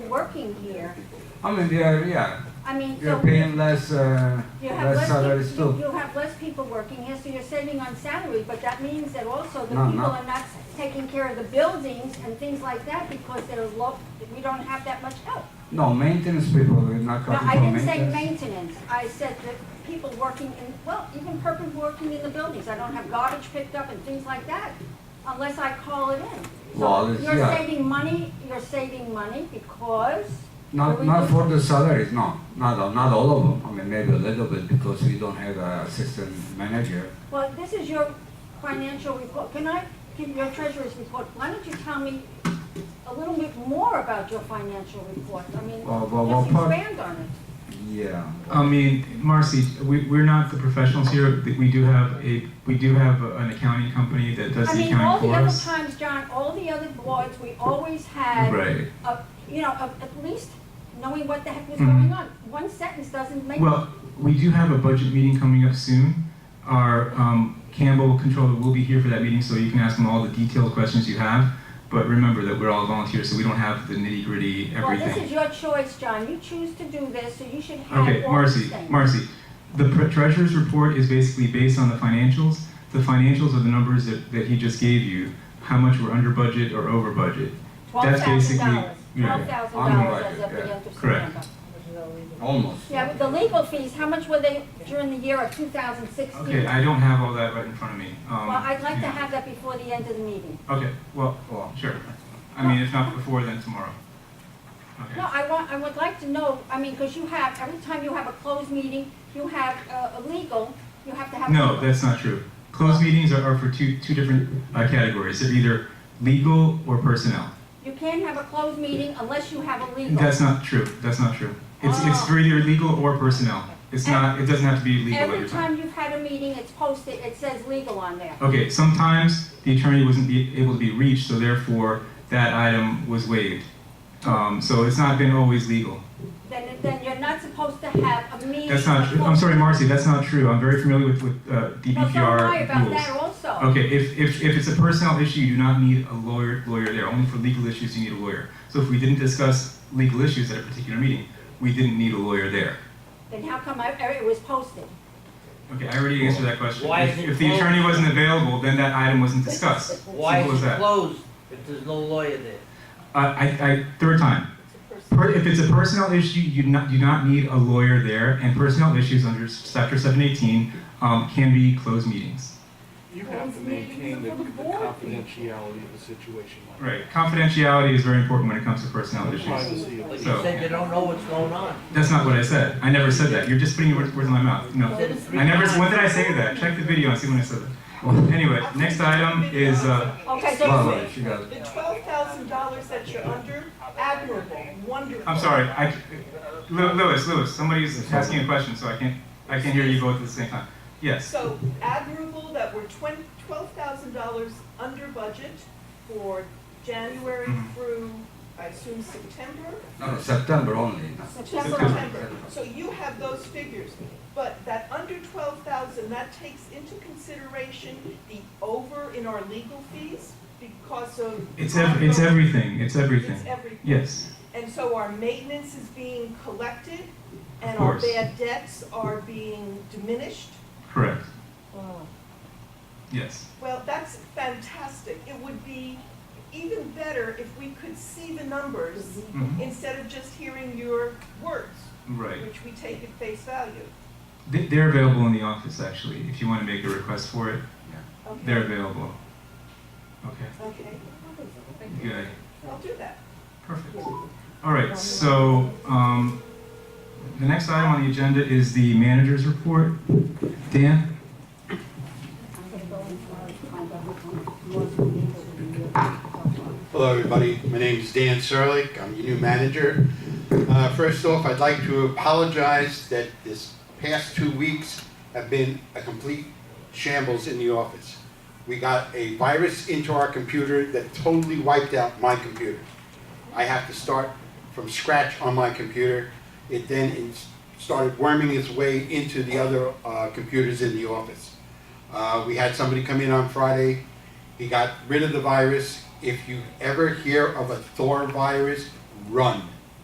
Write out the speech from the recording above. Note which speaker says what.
Speaker 1: working here.
Speaker 2: I mean, they are, yeah,
Speaker 1: I mean, so.
Speaker 2: you're paying less, uh,
Speaker 1: You have
Speaker 2: less salaries
Speaker 1: less, you,
Speaker 2: too.
Speaker 1: you have less people working here, so you're saving on salary, but that means that also the
Speaker 2: No,
Speaker 1: people
Speaker 2: no.
Speaker 1: are not taking care of the buildings and things like that because they're low, we don't have that much help.
Speaker 2: No, maintenance people, we're not
Speaker 1: No,
Speaker 2: cutting
Speaker 1: I
Speaker 2: for
Speaker 1: didn't say
Speaker 2: maintenance.
Speaker 1: maintenance, I said that people working in, well, even people working in the buildings, I don't have garbage picked up and things like that, unless I call it in.
Speaker 2: Well,
Speaker 1: So
Speaker 2: it's-
Speaker 1: you're
Speaker 2: yeah.
Speaker 1: saving money, you're saving money because.
Speaker 2: Not,
Speaker 1: we
Speaker 2: not
Speaker 1: do-
Speaker 2: for the salaries, no, not, all- not all of them. I mean, maybe a little bit because we don't have a assistant manager.
Speaker 1: Well, this is your financial report. Can I, give your treasurer's report, why don't you tell me a little bit more about your financial report? I mean,
Speaker 2: Well, well, well,
Speaker 1: just
Speaker 2: part-
Speaker 1: expand on it.
Speaker 2: Yeah.
Speaker 3: I mean, Marcy, we, we're not the professionals here. We do have a, we do have an accounting company that does
Speaker 1: I
Speaker 3: the
Speaker 1: mean, all
Speaker 3: accounting
Speaker 1: the
Speaker 3: for
Speaker 1: other
Speaker 3: us.
Speaker 1: times, John, all the other boards, we always had.
Speaker 3: Right.
Speaker 1: a- You know, a- at least knowing what the heck was
Speaker 3: Mhm.
Speaker 1: going on. One sentence doesn't make.
Speaker 3: Well, we do have a budget meeting coming up soon. Our um, Campbell controller will be here for that meeting, so you can ask him all the detailed questions you have. But remember that we're all volunteers, so we don't have the nitty gritty
Speaker 1: Well, this
Speaker 3: everything.
Speaker 1: is your choice, John. You choose to do this, so you should have
Speaker 3: Okay,
Speaker 1: all these
Speaker 3: Marcy,
Speaker 1: things.
Speaker 3: Marcy, the pre- treasurer's report is basically based on the financials. The financials are the numbers that, that he just gave you, how much we're under budget or over budget.
Speaker 1: Twelve
Speaker 3: That's
Speaker 1: thousand
Speaker 3: basically
Speaker 1: dollars.
Speaker 3: yeah,
Speaker 1: Twelve thousand
Speaker 2: on the
Speaker 1: dollars as
Speaker 2: budget,
Speaker 1: of the
Speaker 2: yeah,
Speaker 1: end of
Speaker 3: correct.
Speaker 1: September.
Speaker 2: Almost.
Speaker 1: Yeah, but the legal fees, how much were they during the year of two thousand
Speaker 3: Okay,
Speaker 1: sixteen?
Speaker 3: I don't have all that right in front of me. Um,
Speaker 1: Well, I'd like to have that before the end of the meeting.
Speaker 3: Okay, well,
Speaker 2: Well,
Speaker 3: sure. I mean, if not before, then tomorrow.
Speaker 1: No,
Speaker 3: Okay.
Speaker 1: I want, I would like to know, I mean, because you have, every time you have a closed meeting, you have uh, a legal, you have to have.
Speaker 3: No,
Speaker 1: legal.
Speaker 3: that's not true. Closed meetings are, are for two, two different uh, categories. They're either legal or personnel.
Speaker 1: You can't have a closed meeting unless you have a legal.
Speaker 3: That's not true. That's not true. It's, it's
Speaker 1: Oh.
Speaker 3: for either legal or personnel. It's not, it doesn't have to be legal
Speaker 1: Every
Speaker 3: every time.
Speaker 1: time you've had a meeting, it's posted, it says legal on there.
Speaker 3: Okay, sometimes the attorney wasn't be, able to be reached, so therefore that item was waived. Um, so it's not been always legal.
Speaker 1: Then, then you're not supposed to have a meeting.
Speaker 3: That's not true. I'm sorry, Marcy, that's not true. I'm very familiar with, with uh,
Speaker 1: No, don't
Speaker 3: DPPR
Speaker 1: worry about
Speaker 3: rules.
Speaker 1: that also.
Speaker 3: Okay, if, if, if it's a personnel issue, you do not need a lawyer, lawyer there. Only for legal issues, you need a lawyer. So if we didn't discuss legal issues at a particular meeting, we didn't need a lawyer there.
Speaker 1: Then how come I, it was posted?
Speaker 3: Okay, I already answered that question.
Speaker 4: Why
Speaker 3: If,
Speaker 4: is it
Speaker 3: if the
Speaker 4: closed?
Speaker 3: attorney wasn't available, then that item wasn't discussed.
Speaker 4: Why
Speaker 3: Simple as
Speaker 4: is it
Speaker 3: that.
Speaker 4: closed if there's no lawyer there?
Speaker 3: I, Uh, I, I, third time. Per, if it's a personnel issue, you not, do not need a lawyer there, and personnel issues under chapter seven eighteen, um, can be closed meetings.
Speaker 5: You have to maintain the the confidentiality of the situation.
Speaker 3: Right, confidentiality is very important when it comes to personnel issues.
Speaker 5: Privacy of the-
Speaker 4: But you
Speaker 3: So-
Speaker 4: said you don't know what's going on.
Speaker 3: That's not what I said. I never said that. You're just putting words words in my mouth. No.
Speaker 4: You said it three
Speaker 3: I never,
Speaker 4: times.
Speaker 3: what did I say to that? Check the video and see when I said that. Anyway, next item is, uh,
Speaker 1: Okay, so
Speaker 2: Well, well, she got,
Speaker 6: The twelve thousand dollars that you're under, admirable, wonderful.
Speaker 3: I'm sorry, I, Lew- Lewis, Lewis, somebody's asking a question, so I can't, I can't hear you both at the same time. Yes,
Speaker 6: So admirable that we're twenty, twelve thousand dollars under budget for January
Speaker 3: Mhm.
Speaker 6: through, I assume, September?
Speaker 2: no, September only.
Speaker 6: To
Speaker 1: September.
Speaker 6: September. So you have those figures, but that under twelve thousand, that takes into consideration the over in our legal fees because of.
Speaker 3: it's ev- it's everything, it's
Speaker 6: It's
Speaker 3: everything.
Speaker 6: everything.
Speaker 3: Yes.
Speaker 6: And so our maintenance is being collected, and
Speaker 3: Of
Speaker 6: our
Speaker 3: course.
Speaker 6: bad debts are being diminished.
Speaker 3: Correct. Yes.
Speaker 6: Well, that's fantastic. It would be even better if we could see the numbers
Speaker 3: Mhm.
Speaker 6: instead of just hearing your words,
Speaker 3: Right.
Speaker 6: which we take at face value.
Speaker 3: They- They're available in the office, actually, if you want to make a request for it.
Speaker 6: Okay?
Speaker 3: They're available. Okay,
Speaker 6: Okay,
Speaker 3: good.
Speaker 6: I'll do that.
Speaker 3: Perfect. All right, so um, the next item on the agenda is the manager's report. Dan?
Speaker 7: Hello, everybody. My name is Dan Serlik. I'm your new manager. Uh, First off, I'd like to apologize that this past two weeks have been a complete shambles in the office. We got a virus into our computer that totally wiped out my computer. I have to start from scratch on my computer. It then in- started worming its way into the other uh, computers in the office. Uh, We had somebody come in on Friday he got rid of the virus. If you ever hear of a Thor virus, run.